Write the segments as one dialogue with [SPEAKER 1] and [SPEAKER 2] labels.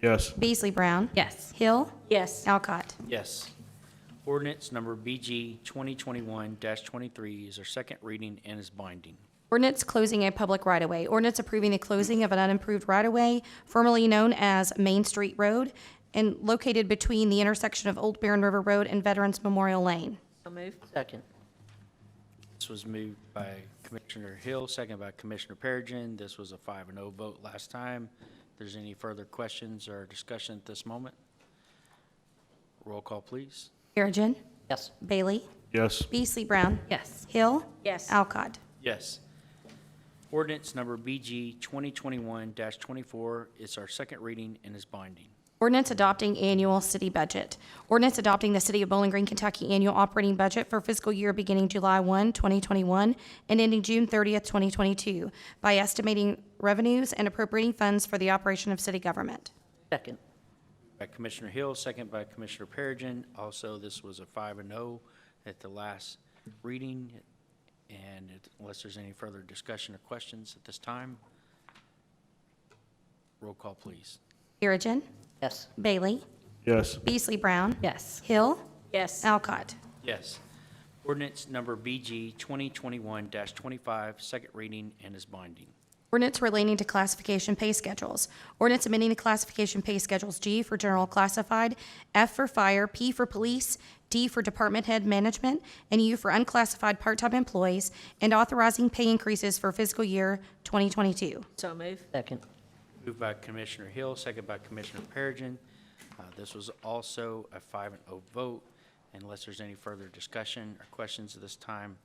[SPEAKER 1] Yes.
[SPEAKER 2] Beasley Brown.
[SPEAKER 3] Yes.
[SPEAKER 2] Hill.
[SPEAKER 4] Yes.
[SPEAKER 2] Alcott.
[SPEAKER 5] Yes. Ordinance number BG 2021-23 is our second reading and is binding.
[SPEAKER 2] Ordinance closing a public right-of-way. Ordinance approving the closing of an unimproved right-of-way formerly known as Main Street Road and located between the intersection of Old Barren River Road and Veterans Memorial Lane.
[SPEAKER 4] So moved. Second.
[SPEAKER 5] This was moved by Commissioner Hill, second by Commissioner Perigin. This was a five and oh vote last time. If there's any further questions or discussion at this moment, roll call, please.
[SPEAKER 2] Perigin.
[SPEAKER 4] Yes.
[SPEAKER 2] Bailey.
[SPEAKER 1] Yes.
[SPEAKER 2] Beasley Brown.
[SPEAKER 3] Yes.
[SPEAKER 2] Hill.
[SPEAKER 4] Yes.
[SPEAKER 2] Alcott.
[SPEAKER 5] Yes. Ordinance number BG 2021-24 is our second reading and is binding.
[SPEAKER 2] Ordinance adopting annual city budget. Ordinance adopting the City of Bowling Green, Kentucky annual operating budget for fiscal year beginning July 1, 2021 and ending June 30th, 2022 by estimating revenues and appropriating funds for the operation of city government.
[SPEAKER 4] Second.
[SPEAKER 5] By Commissioner Hill, second by Commissioner Perigin. Also, this was a five and oh at the last reading. And it- unless there's any further discussion or questions at this time, roll call, please.
[SPEAKER 2] Perigin.
[SPEAKER 4] Yes.
[SPEAKER 2] Bailey.
[SPEAKER 1] Yes.
[SPEAKER 2] Beasley Brown.
[SPEAKER 3] Yes.
[SPEAKER 2] Hill.
[SPEAKER 4] Yes.
[SPEAKER 2] Alcott.
[SPEAKER 5] Yes. Ordinance number BG 2021-25, second reading and is binding.
[SPEAKER 2] Ordinance relating to classification pay schedules. Ordinance amending the classification pay schedules G for general classified, F for fire, P for police, D for department head management, and U for unclassified part-time employees, and authorizing pay increases for fiscal year 2022.
[SPEAKER 4] So moved. Second.
[SPEAKER 5] Moved by Commissioner Hill, second by Commissioner Perigin. Uh, This was also a five and oh vote. Unless there's any further discussion or questions at this time,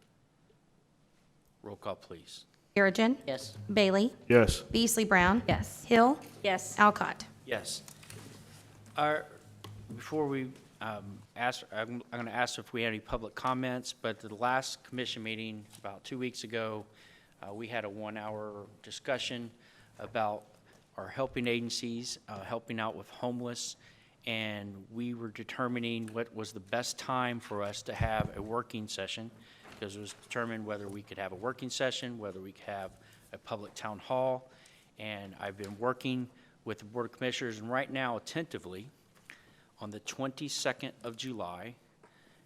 [SPEAKER 5] roll call, please.
[SPEAKER 2] Perigin.
[SPEAKER 4] Yes.
[SPEAKER 2] Bailey.
[SPEAKER 1] Yes.
[SPEAKER 2] Beasley Brown.
[SPEAKER 3] Yes.
[SPEAKER 2] Hill.
[SPEAKER 4] Yes.
[SPEAKER 2] Alcott.
[SPEAKER 5] Yes. Our, before we um, ask, I'm going to ask if we had any public comments, but the last commission meeting about two weeks ago, uh, we had a one-hour discussion about our helping agencies, uh, helping out with homeless, and we were determining what was the best time for us to have a working session, because it was determined whether we could have a working session, whether we could have a public town hall, and I've been working with the Board of Commissioners, and right now attentively, on the 22nd of July,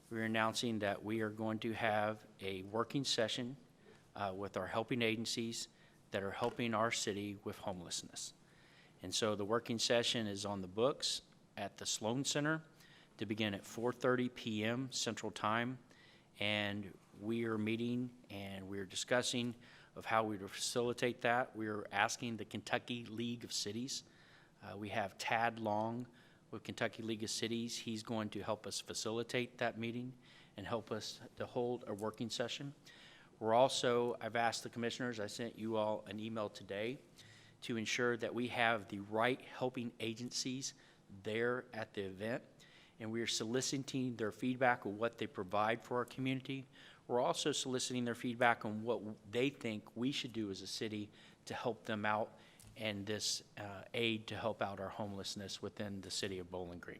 [SPEAKER 5] we're announcing that we are going to have a working session uh, with our helping agencies that are helping our city with homelessness. And so the working session is on the books at the Sloan Center to begin at 4:30 PM Central Time. And we are meeting and we are discussing of how we would facilitate that. We are asking the Kentucky League of Cities. Uh, We have Tad Long with Kentucky League of Cities. He's going to help us facilitate that meeting and help us to hold a working session. We're also, I've asked the commissioners, I sent you all an email today, to ensure that we have the right helping agencies there at the event. And we are soliciting their feedback on what they provide for our community. We're also soliciting their feedback on what they think we should do as a city to help them out and this uh, aid to help out our homelessness within the city of Bowling Green.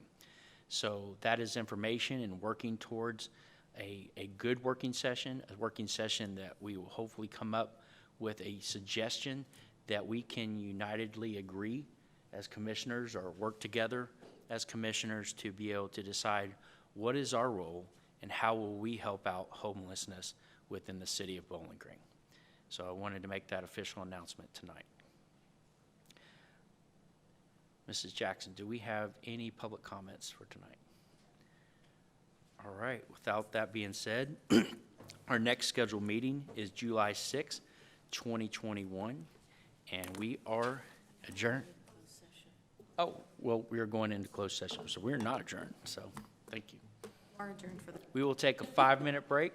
[SPEAKER 5] So that is information and working towards a, a good working session, a working session that we will hopefully come up with a suggestion that we can unitedly agree as commissioners or work together as commissioners to be able to decide what is our role and how will we help out homelessness within the city of Bowling Green. So I wanted to make that official announcement tonight. Mrs. Jackson, do we have any public comments for tonight? All right, without that being said, our next scheduled meeting is July sixth, twenty 2021, and we are adjourned. Oh, well, we are going into closed session, so we're not adjourned, so, thank you. We're adjourned for the. We will take a five-minute break.